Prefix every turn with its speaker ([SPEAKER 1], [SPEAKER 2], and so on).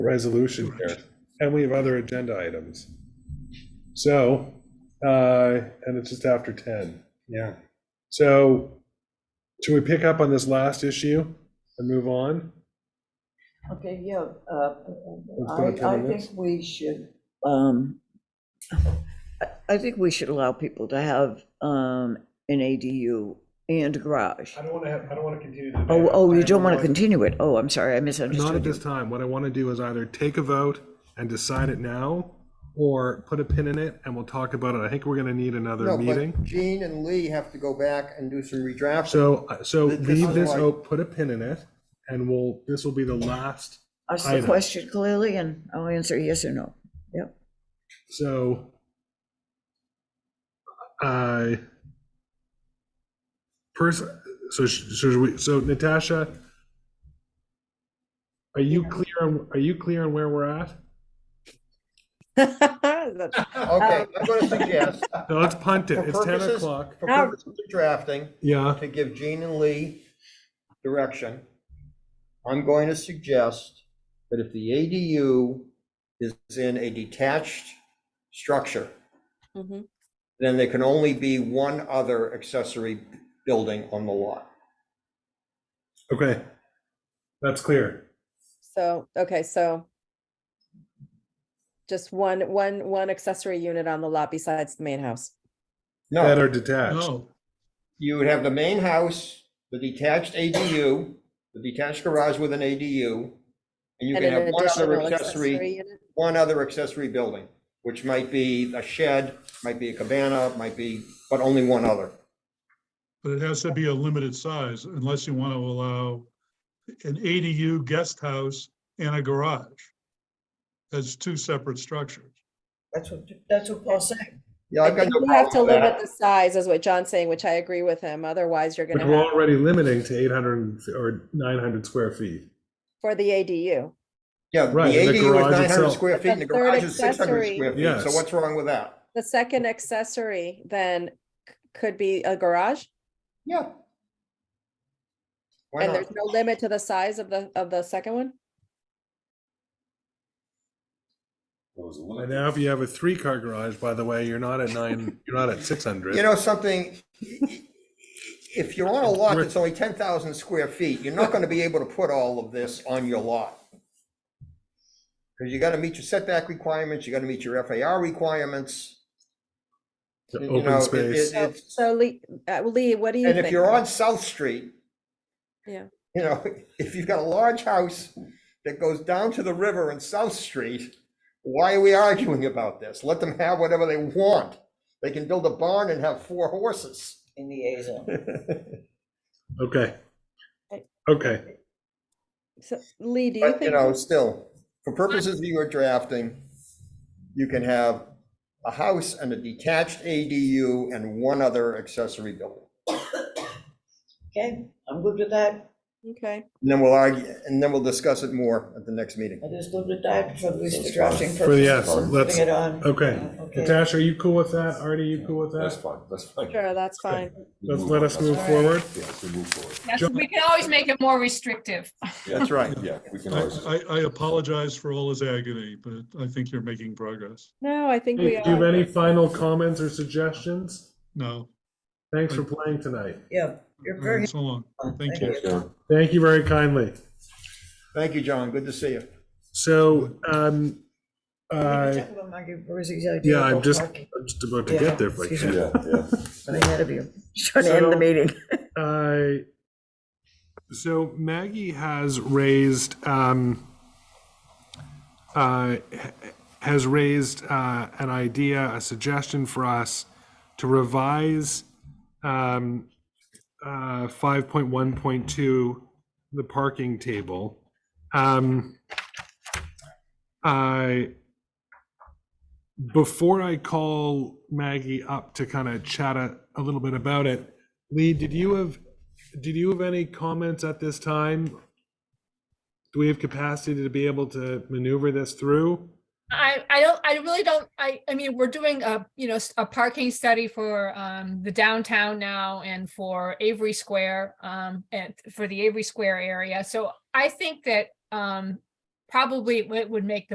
[SPEAKER 1] resolution here, and we have other agenda items. So, uh, and it's just after 10.
[SPEAKER 2] Yeah.
[SPEAKER 1] So should we pick up on this last issue and move on?
[SPEAKER 3] Okay, yeah, uh,
[SPEAKER 1] Let's go
[SPEAKER 3] I,
[SPEAKER 1] to the
[SPEAKER 3] I
[SPEAKER 1] next.
[SPEAKER 3] think we should, um, I, I think we should allow people to have, um, an ADU and a garage.
[SPEAKER 1] don't want to have, I don't want to continue the
[SPEAKER 3] Oh, oh, you don't want to continue it? Oh, I'm sorry, I
[SPEAKER 1] Not at
[SPEAKER 3] misunderstood you.
[SPEAKER 1] this time. What I want to do is either take a vote and decide it now, or put a pin in it and we'll talk about it. I think we're going to need another
[SPEAKER 2] No,
[SPEAKER 1] meeting.
[SPEAKER 2] but Gene and Lee have to go back and do some redrafting.
[SPEAKER 1] So, uh, so
[SPEAKER 2] This- this
[SPEAKER 1] leave
[SPEAKER 2] is
[SPEAKER 1] this,
[SPEAKER 2] why-
[SPEAKER 1] oh, put a pin in it, and we'll, this will be the last,
[SPEAKER 3] Ask the
[SPEAKER 1] item.
[SPEAKER 3] question clearly and I'll answer yes or no. Yep.
[SPEAKER 1] so. I. Person, so, sh- so we, so Natasha. Are you clear, on are you clear on where we're at?
[SPEAKER 4] That's-
[SPEAKER 2] Okay, I'm gonna suggest,
[SPEAKER 1] No, let's punt it,
[SPEAKER 2] For
[SPEAKER 1] it's ten
[SPEAKER 2] purposes-
[SPEAKER 1] o'clock,
[SPEAKER 2] for purposes of drafting,
[SPEAKER 1] yeah,
[SPEAKER 2] to give Gene and Lee direction, I'm going to suggest that if the ADU is in a detached structure,
[SPEAKER 4] mhm.
[SPEAKER 2] then there can only be one other accessory building on the lot.
[SPEAKER 1] okay. That's clear,
[SPEAKER 4] So, okay, so just one, one, one accessory unit on the lot besides the main house.
[SPEAKER 1] that
[SPEAKER 2] No,
[SPEAKER 1] are detached,
[SPEAKER 2] you would have the main house, the detached ADU, the detached garage with an ADU, and you can
[SPEAKER 4] and an
[SPEAKER 2] have one other
[SPEAKER 4] additional
[SPEAKER 2] accessory,
[SPEAKER 4] unit.
[SPEAKER 2] one other accessory building, which might be a shed, might be a cabana, might be, but only one other.
[SPEAKER 5] But it has to be a limited size unless you want to allow an ADU guest house and a garage. As two separate structures.
[SPEAKER 3] That's what, that's what Paul said.
[SPEAKER 2] Yeah, I've got no
[SPEAKER 4] You have to
[SPEAKER 2] problem with
[SPEAKER 4] limit
[SPEAKER 2] that.
[SPEAKER 4] the size, is what John's saying, which I agree with him. Otherwise, you're
[SPEAKER 1] which
[SPEAKER 4] gonna
[SPEAKER 1] we're
[SPEAKER 4] have,
[SPEAKER 1] already limiting to eight hundred or nine hundred square feet.
[SPEAKER 4] for the ADU.
[SPEAKER 2] Yeah, the
[SPEAKER 1] Right, and the
[SPEAKER 2] ADU is
[SPEAKER 1] garage
[SPEAKER 2] nine hundred
[SPEAKER 1] itself.
[SPEAKER 2] square feet, and the
[SPEAKER 4] But the third
[SPEAKER 2] garage is six hundred
[SPEAKER 4] accessory-
[SPEAKER 2] square feet,
[SPEAKER 1] Yes.
[SPEAKER 2] so what's wrong with that?
[SPEAKER 4] The second accessory then c- could be a garage,
[SPEAKER 2] Yeah. Why not?
[SPEAKER 4] and there's no limit to the size of the, of the second one?
[SPEAKER 1] And now if you have a three-car garage, by the way, you're not at nine, you're not at six hundred.
[SPEAKER 2] You know something, if you're on a lot that's only ten thousand square feet, you're not gonna be able to put all of this on your lot. Because you gotta meet your setback requirements, you gotta meet your FAR requirements. you know,
[SPEAKER 1] Open
[SPEAKER 2] it-
[SPEAKER 1] space.
[SPEAKER 2] it-
[SPEAKER 4] So-
[SPEAKER 2] it's-
[SPEAKER 4] So Lee, uh, Lee, what do you
[SPEAKER 2] And
[SPEAKER 4] think?
[SPEAKER 2] if you're on South Street.
[SPEAKER 4] Yeah.
[SPEAKER 2] You know, if you've got a large house that goes down to the river in South Street, why are we arguing about this? Let them have whatever they want. They can build a barn and have four horses.
[SPEAKER 3] In the A zone.
[SPEAKER 1] Okay. Okay,
[SPEAKER 4] So, Lee, do you
[SPEAKER 2] But, you
[SPEAKER 4] think,
[SPEAKER 2] know, still, for purposes of your drafting, you can have a house and a detached ADU and one other accessory building.
[SPEAKER 3] Okay, I'm good with that.
[SPEAKER 4] okay,
[SPEAKER 2] And then we'll argue, and then we'll discuss it more at the next meeting.
[SPEAKER 3] That is good with that for this drafting
[SPEAKER 1] For the yes,
[SPEAKER 3] purposes. Putting
[SPEAKER 1] let's-
[SPEAKER 3] it on.
[SPEAKER 1] okay.
[SPEAKER 3] Okay.
[SPEAKER 1] Natasha, are you cool with that? Artie, you cool with
[SPEAKER 6] That's
[SPEAKER 1] that?
[SPEAKER 6] fine, that's fine.
[SPEAKER 4] sure, that's fine.
[SPEAKER 1] Let's let us
[SPEAKER 6] on,
[SPEAKER 1] move
[SPEAKER 6] that's fine.
[SPEAKER 1] forward.
[SPEAKER 6] Yeah, let's move forward.
[SPEAKER 7] Yes,
[SPEAKER 1] John-
[SPEAKER 7] we can always make it more restrictive.
[SPEAKER 6] Yeah,
[SPEAKER 2] That's right.
[SPEAKER 6] Yeah, we can
[SPEAKER 5] I,
[SPEAKER 6] always,
[SPEAKER 5] I, I apologize for all his agony, but I think you're making progress.
[SPEAKER 4] No, I think
[SPEAKER 1] Do
[SPEAKER 4] we
[SPEAKER 1] you have
[SPEAKER 4] are.
[SPEAKER 1] any final comments or suggestions?
[SPEAKER 5] No,
[SPEAKER 1] Thanks for playing tonight.
[SPEAKER 3] Yeah, you're
[SPEAKER 5] all
[SPEAKER 3] very.
[SPEAKER 5] right, so long. Thank you.
[SPEAKER 6] Thanks, Karen.
[SPEAKER 1] Thank you very kindly.
[SPEAKER 2] Thank you, John. Good to see you.
[SPEAKER 1] So, um,
[SPEAKER 3] We need
[SPEAKER 1] uh,
[SPEAKER 3] to talk about Market Versus Idea
[SPEAKER 1] yeah, I'm
[SPEAKER 3] about
[SPEAKER 1] just,
[SPEAKER 3] parking.
[SPEAKER 1] I'm just about to
[SPEAKER 3] Yeah,
[SPEAKER 1] get there if I
[SPEAKER 3] excuse
[SPEAKER 1] can.
[SPEAKER 6] yeah, yeah.
[SPEAKER 3] I'm ahead of you. Trying to end the
[SPEAKER 1] So-
[SPEAKER 3] meeting.
[SPEAKER 1] I, Uh, so Maggie has raised, um, uh, h- has raised, uh, an idea, a suggestion for us to revise, um, uh, five point one point two, the parking table. Um, I, before I call Maggie up to kind of chat a, a little bit about it, Lee, did you have, did you have any comments at this time? Do we have capacity to be able to maneuver this through?
[SPEAKER 7] I, I don't, I really don't, I, I mean, we're doing a, you know, s- a parking study for, um, the downtown now and for Avery Square, um, and for the Avery Square area. So I think that, um, probably it would make the